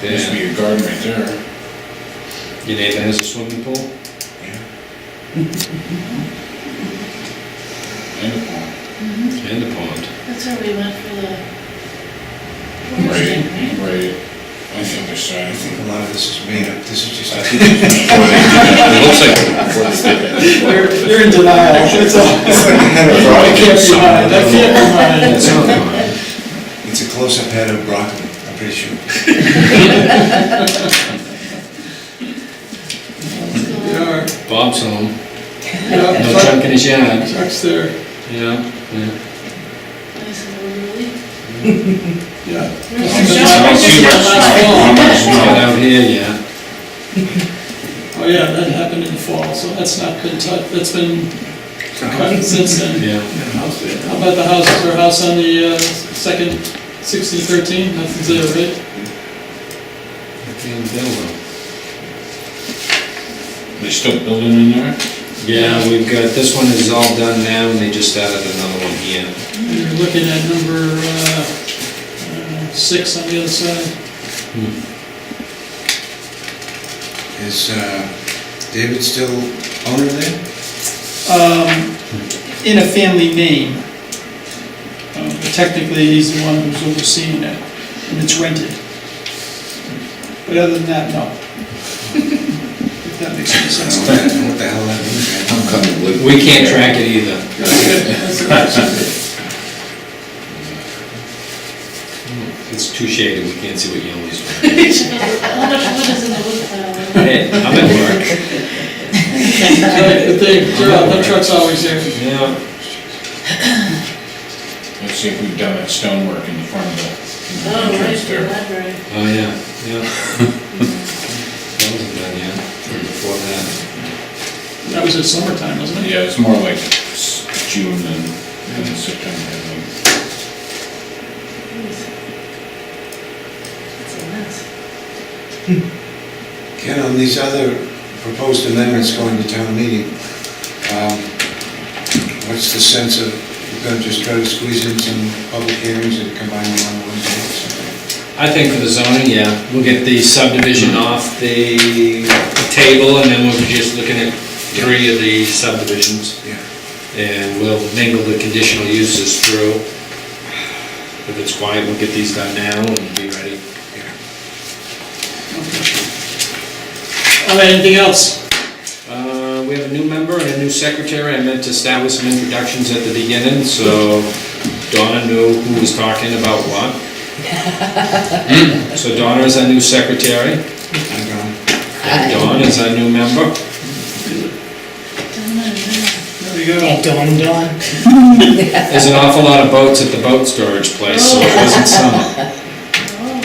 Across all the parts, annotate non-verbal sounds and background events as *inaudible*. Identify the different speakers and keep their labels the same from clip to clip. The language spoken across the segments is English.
Speaker 1: There used to be a garden right there.
Speaker 2: Your neighbor has a swimming pool?
Speaker 1: And a pond.
Speaker 2: And a pond.
Speaker 3: That's where we went for the.
Speaker 1: Right, right. On the other side.
Speaker 4: A lot of this is made up, this is just.
Speaker 1: I think it was before they did that.
Speaker 2: It looks like,
Speaker 1: Before they
Speaker 4: *laughs*
Speaker 1: did that.
Speaker 5: You're, you're in denial, that's all.
Speaker 4: It's like a head of
Speaker 5: I
Speaker 4: broccoli.
Speaker 5: can't deny it, I can't deny it.
Speaker 2: it's not mine.
Speaker 4: It's a close-up head of broccoli, I'm pretty sure.
Speaker 5: You are,
Speaker 2: Bob's home, no
Speaker 5: yeah,
Speaker 2: junk
Speaker 5: Chuck-
Speaker 2: in his yard.
Speaker 5: Chuck's there,
Speaker 2: Yeah, yeah.
Speaker 5: yeah.
Speaker 3: *laughs*
Speaker 2: I don't see much snow,
Speaker 5: Oh,
Speaker 2: much snow out here, yeah.
Speaker 5: Oh, yeah, that happened in the fall, so that's not been touched, that's been cut since then.
Speaker 2: Yeah.
Speaker 5: How about the house, our house on the, uh, second, sixteen thirteen, nothing's there, right?
Speaker 2: Damn devil.
Speaker 1: They still building in there?
Speaker 2: Yeah, we've got, this one is all done now, and they just added another one here.
Speaker 5: You're looking at number, uh, uh, six on the other side.
Speaker 4: Is uh, David still owner there?
Speaker 5: Um, in a family name. Uh, but Technically, he's the one who's overseeing it, and it's rented. But other than that, no. If that makes any
Speaker 4: I
Speaker 5: sense.
Speaker 4: don't know what the- what the hell that means, man.
Speaker 1: I'm coming with
Speaker 2: We can't track it *laughs* either. It's too shaded, we can't see what yellow is.
Speaker 3: How much wood is in the wood pile?
Speaker 2: *laughs* Hey, I'm at work.
Speaker 5: Right, but they, they're out, that truck's always there.
Speaker 2: Yeah.
Speaker 1: Let's see if we've done that stonework in the front of the in the
Speaker 3: Oh, right,
Speaker 1: entrance
Speaker 3: the
Speaker 1: there.
Speaker 3: library.
Speaker 2: Oh, yeah, yeah. *laughs* That wasn't done yet, or before that.
Speaker 5: That was in summertime, wasn't it?
Speaker 1: Yeah, it's more like s- June than, than September, I think.
Speaker 3: That's a mess.
Speaker 4: Ken, on these other proposed amendments going to town meeting, um, what's the sense of, you're gonna just try to squeeze in some public hearings and combine them on one day or something?
Speaker 2: I think for the zoning, yeah, we'll get the subdivision off the table, and then we'll be just looking at three of the subdivisions,
Speaker 4: Yeah.
Speaker 2: and we'll mingle the conditional uses through. If it's quiet, we'll get these done now and be ready.
Speaker 5: All right, Oh, anything else?
Speaker 2: Uh, We have a new member and a new secretary. I meant to establish some introductions at the beginning, so Donna knew who was talking about *laughs* what. Hmm, So Donna is our new secretary,
Speaker 4: I'm going.
Speaker 2: and Dawn is our new member.
Speaker 3: Don't know, yeah.
Speaker 5: There we go.
Speaker 6: Dawn, dawn.
Speaker 2: There's an awful lot of boats at the boat storage place, so it wasn't summer.
Speaker 3: Oh,
Speaker 1: Oh,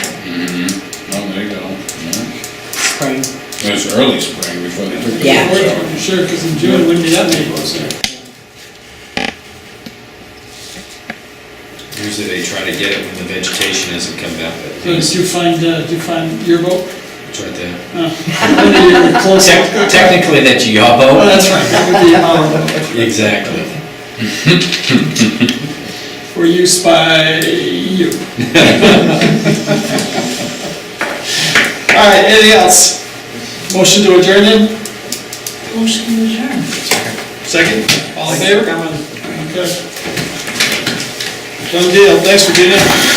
Speaker 1: there you go, yeah.
Speaker 6: Spring.
Speaker 1: It was early spring before they took the.
Speaker 6: Yeah.
Speaker 1: boats out.
Speaker 5: Sure, because in June, wouldn't be that many boats there.
Speaker 2: Usually they try to get it when the vegetation hasn't come back, but
Speaker 5: So did you find, uh, did you find your boat?
Speaker 2: it's right there.
Speaker 5: Maybe you're close.
Speaker 2: Tec- Technically, that's your
Speaker 5: Oh,
Speaker 2: boat.
Speaker 5: that's right, that would be um, our boat.
Speaker 2: Exactly.
Speaker 5: For use by you. All right, anything else? Motion to adjourn then?
Speaker 3: motion to adjourn.
Speaker 5: Second. All in favor? Okay. Done deal, thanks Virginia.